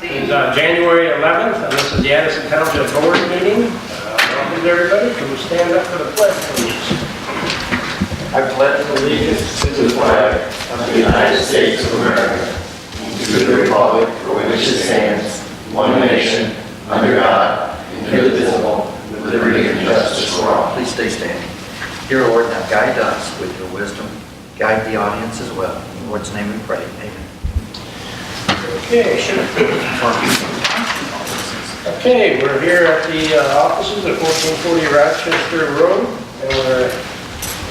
It's uh, January 11th, and this is the Addison Township Board meeting. Uh, Welcome to everybody, can we stand up for the pledge, please? I pledge allegiance to the flag of the United States of America and to the republic for which it stands, one nation, under God, indivisible, with liberty and justice for all. Please stay standing. Dear Lord, now guide us with your wisdom. Guide the audience as well. In Lord's name we pray. Amen. Okay, sure. Okay, we're here at the uh, offices at 1440 Rochester Road, and we're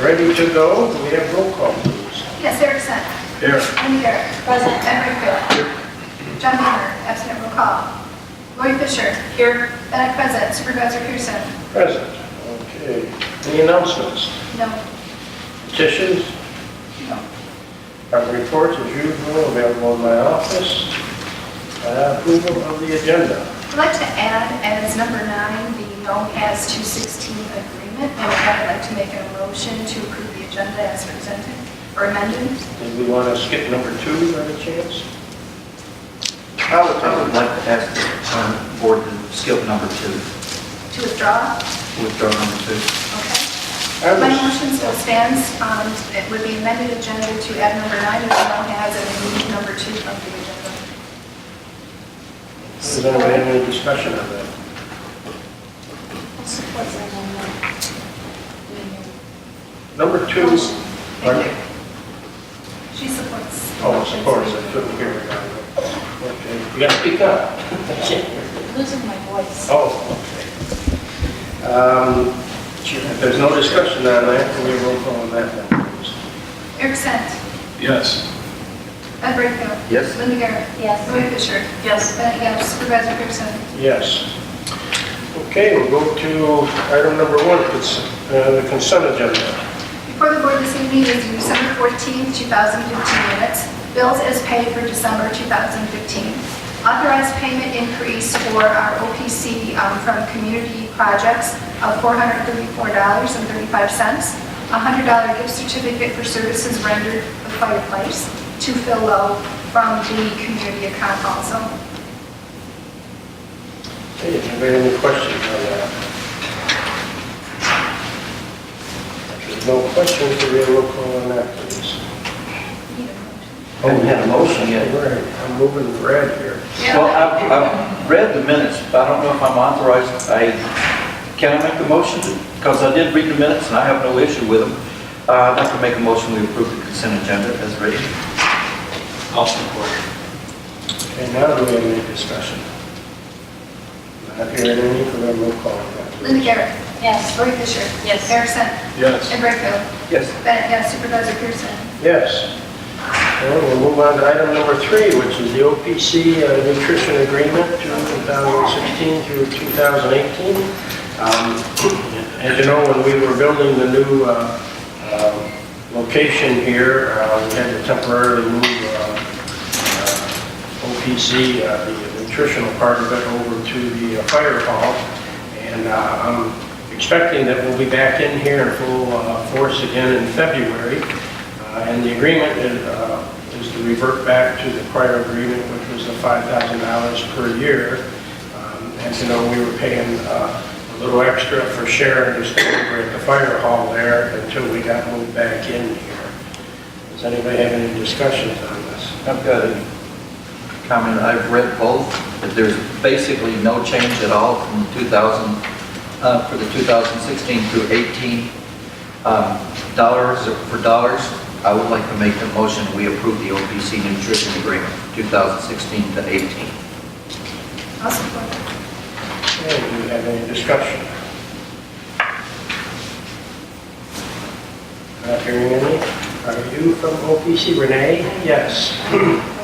ready to go. We have roll call, please. Yes, Erickson. Here. Lanier. Present. Emery John Hunter, absent, roll call. Lloyd Fisher. Here. Bennett present. Supervisor Pearson. Present. Okay. Any announcements? No. Petitions? No. Our reports, as usual, available in my office. Uh, Approval of the agenda. I'd like to add as number nine, the NOAA's 216 agreement. And with that, I'd like to make a motion to approve the agenda as presented or amended. Did we want to skip number two by any chance? I would, I would like to ask the um, board to skip number two, To withdraw? withdraw number two. Okay. I My was, motion still stands. Um, It would be amended agenda to add number nine as well as remove number two from the agenda. does anybody have any discussion on that? Support that amendment. Number two, Motion. Thank you. She supports. oh, of course, I couldn't hear it. Okay, you got to speak up. Losing my voice. Oh, okay. Um, If there's no discussion on that, can we roll call on that then, please? Erickson. Yes. Ed Brightfield. Yes. Linda Garrett. Yes. Lloyd Fisher. Yes. Bennett, yes. Supervisor Pearson. Yes. Okay, we'll go to item number one, cons- uh, the consent agenda. Before the board this evening is the December 14th, 2015 minutes, bills as paid for December 2015, authorized payment increase for our OPC um, from community projects of $434.35, a $100 gift certificate for services rendered for fireplace to Phil Lowe from the community account also. Hey, if you have any questions on that? If there's no questions, we will roll call on that, please. Need a Haven't motion? Oh, had a motion yet. Right, I'm moving red here. Yeah. Well, I've, I've read the minutes, but I don't know if I'm authorized, I, can I make a motion? Because I did read the minutes and I have no issue with them. Uh, I'd like to make a motion, we approve the consent agenda as written. I'll support. Okay, now do we have any discussion? Not hearing any, can we roll call on that? Linda Garrett. Yes. Lori Fisher. Yes. Erickson. Yes. And Brightfield. Yes. Bennett, yes. Supervisor Pearson. Yes. Well, we'll move on to item number three, which is the OPC uh, nutrition agreement 2016 through 2018. Um, As you know, when we were building the new uh, uh, location here, uh, we had to temporarily move uh, uh, OPC, uh, the nutritional part of it, over to the uh, fire hall. And uh, I'm expecting that we'll be back in here in full uh, force again in February. Uh, And the agreement is, uh, is to revert back to the prior agreement, which was the $5,000 per year. Um, As you know, we were paying uh, a little extra for Sharon to stay over at the fire hall there until we got moved back in here. Does anybody have any discussions on this? I've got a comment, I've read both, that there's basically no change at all from 2000, uh, for the 2016 through 18, um, dollars for dollars. I would like to make the motion, we approve the OPC nutrition agreement, 2016 to 18. I'll support. Okay, do we have any discussion? Not hearing any. Are you from OPC, Renee? Yes.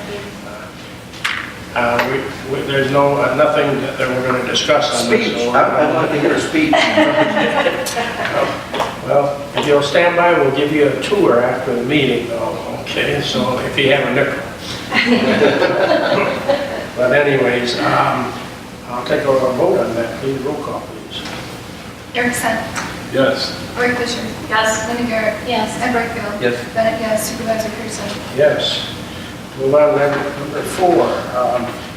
Uh, we- we- There's no, uh, nothing that that we're going to discuss on this. Speech, so- uh, Uh, I- I'd like to hear a speech. Well, if you'll stand by, we'll give you a tour after the meeting, though, okay? So if you have a nickel. But anyways, um, I'll take a vote on that, please, roll call, please. Erickson. Yes. Lori Fisher. Yes. Linda Garrett. Yes. Ed Brightfield. Yes. Bennett, yes. Supervisor Pearson. Yes. Move on to item number four. Um,